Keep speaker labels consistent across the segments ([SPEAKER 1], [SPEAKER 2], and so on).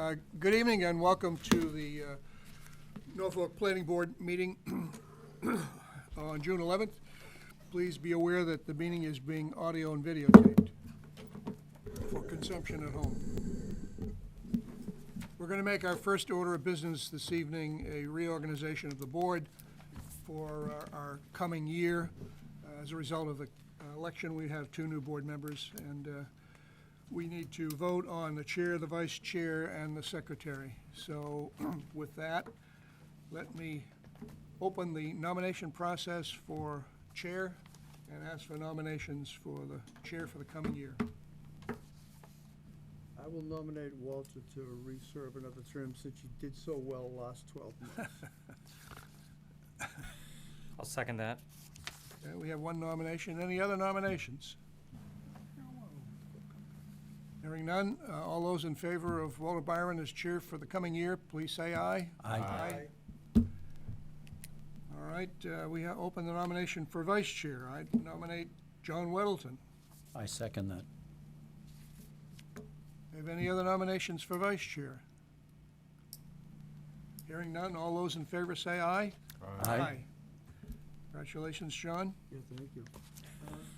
[SPEAKER 1] Uh, Good evening and welcome to the uh, Norfolk Planning Board meeting on June 11th. Please be aware that the meeting is being audio and videotaped for consumption at home. We're going to make our first order of business this evening, a reorganization of the board for our- our coming year. Uh, As a result of the uh, election, we have two new board members, and uh, we need to vote on the chair, the vice chair, and the secretary. So with that, let me open the nomination process for chair and ask for nominations for the chair for the coming year.
[SPEAKER 2] I will nominate Walter to reserve another term since you did so well last 12 months.
[SPEAKER 3] I'll second that.
[SPEAKER 1] Okay, we have one nomination. Any other nominations? Hearing none, uh, all those in favor of Walter Byron as chair for the coming year, please say aye. Aye. All right, uh, we ha- open the nomination for vice chair. I nominate John Weddleton.
[SPEAKER 4] I second that.
[SPEAKER 1] Have any other nominations for vice chair? Hearing none, all those in favor say aye. Congratulations, John.
[SPEAKER 2] Yeah, thank you.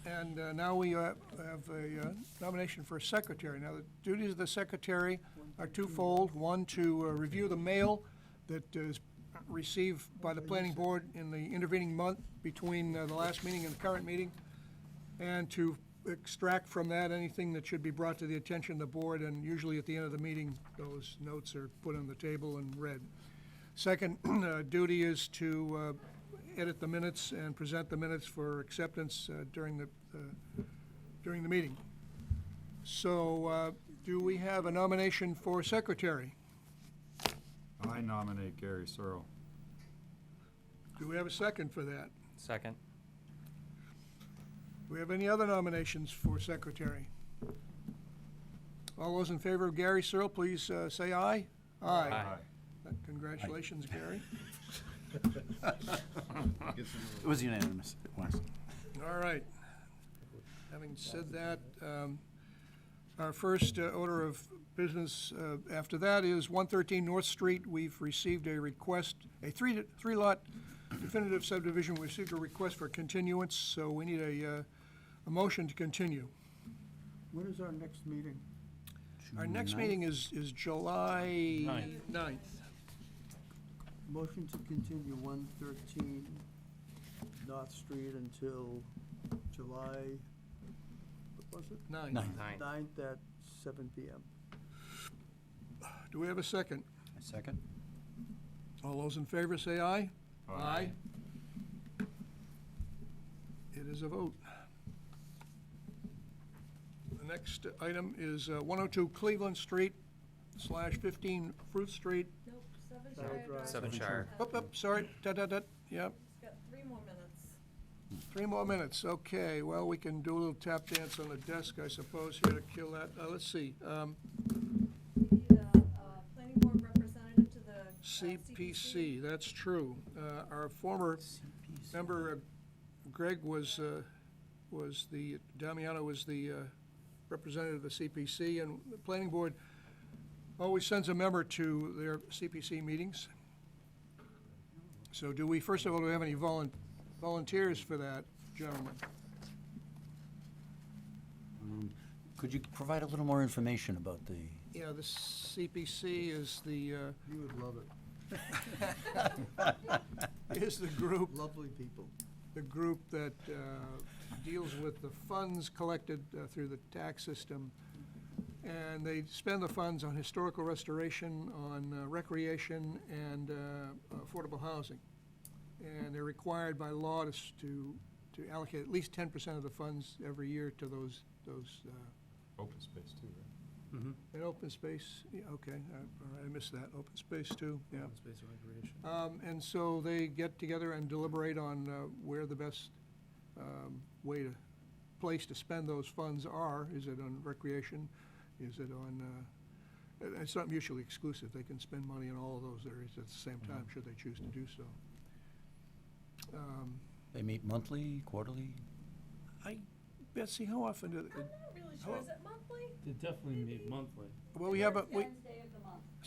[SPEAKER 1] And uh, now we uh, have a uh, nomination for a secretary. Now, the duties of the secretary are twofold. One, to uh, review the mail that is received by the planning board in the intervening month between uh, the last meeting and the current meeting, and to extract from that anything that should be brought to the attention of the board, and usually at the end of the meeting, those notes are put on the table and read. Second uh, duty is to uh, edit the minutes and present the minutes for acceptance uh, during the, uh, during the meeting. So uh, do we have a nomination for secretary?
[SPEAKER 5] I nominate Gary Searle.
[SPEAKER 1] Do we have a second for that?
[SPEAKER 3] Second.
[SPEAKER 1] Do we have any other nominations for secretary? All those in favor of Gary Searle, please uh, say aye. Aye. Congratulations, Gary.
[SPEAKER 4] It was unanimous. It was.
[SPEAKER 1] All right. Having said that, um, our first uh, order of business uh, after that is 113 North Street. We've received a request, a three, three-lot definitive subdivision. We received a request for continuance, so we need a, uh, a motion to continue.
[SPEAKER 2] When is our next meeting?
[SPEAKER 1] Our next meeting is, is July 9th.
[SPEAKER 2] Motion to continue 113 North Street until July, what was it?
[SPEAKER 1] Ninth.
[SPEAKER 4] Ninth.
[SPEAKER 3] Nine.
[SPEAKER 2] 9th at 7 PM.
[SPEAKER 1] Do we have a second?
[SPEAKER 4] I second.
[SPEAKER 1] All those in favor say aye. It is a vote. The next item is uh, 102 Cleveland Street slash 15 Fruit Street.
[SPEAKER 6] Nope, seven
[SPEAKER 2] Sorry,
[SPEAKER 6] Shire
[SPEAKER 2] Brian.
[SPEAKER 6] Drive.
[SPEAKER 3] Seven Shire.
[SPEAKER 1] Up, up, sorry, da, da, da, yep,
[SPEAKER 6] It's got three more minutes.
[SPEAKER 1] three more minutes, okay. Well, we can do a little tap dance on the desk, I suppose, here to kill that. Uh, Let's see, um,
[SPEAKER 6] We need a, uh planning board representative to the. uh,
[SPEAKER 1] CPC, that's true. Uh, Our former member uh, Greg was, uh, was the, Damiano was the uh, representative of the CPC, and the planning board always sends a member to their CPC meetings. So do we, first of all, do we have any volun- volunteers for that, gentlemen?
[SPEAKER 4] Could you provide a little more information about the?
[SPEAKER 1] Yeah, the CPC is the, uh,
[SPEAKER 2] You would love it.
[SPEAKER 1] is the group
[SPEAKER 2] Lovely people.
[SPEAKER 1] the group that uh, deals with the funds collected uh, through the tax system. And they spend the funds on historical restoration, on uh, recreation, and uh, affordable housing. And they're required by law to, s- to to allocate at least ten percent of the funds every year to those, those, uh,
[SPEAKER 5] Open space too, right?
[SPEAKER 1] and open space, yeah, okay, uh, all right, I missed that, open space too, yeah.
[SPEAKER 7] space and recreation.
[SPEAKER 1] Um, And so they get together and deliberate on uh, where the best um, way to, place to spend those funds are. Is it on recreation? Is it on, uh, it- it's not mutually exclusive. They can spend money in all of those areas at the same time, should they choose to do so. Um,
[SPEAKER 4] They meet monthly, quarterly?
[SPEAKER 1] I, Betsy, how often do,
[SPEAKER 6] I'm not really sure, is it monthly?
[SPEAKER 7] They definitely meet monthly.
[SPEAKER 1] well, we have a, we-
[SPEAKER 6] Wednesday of the month.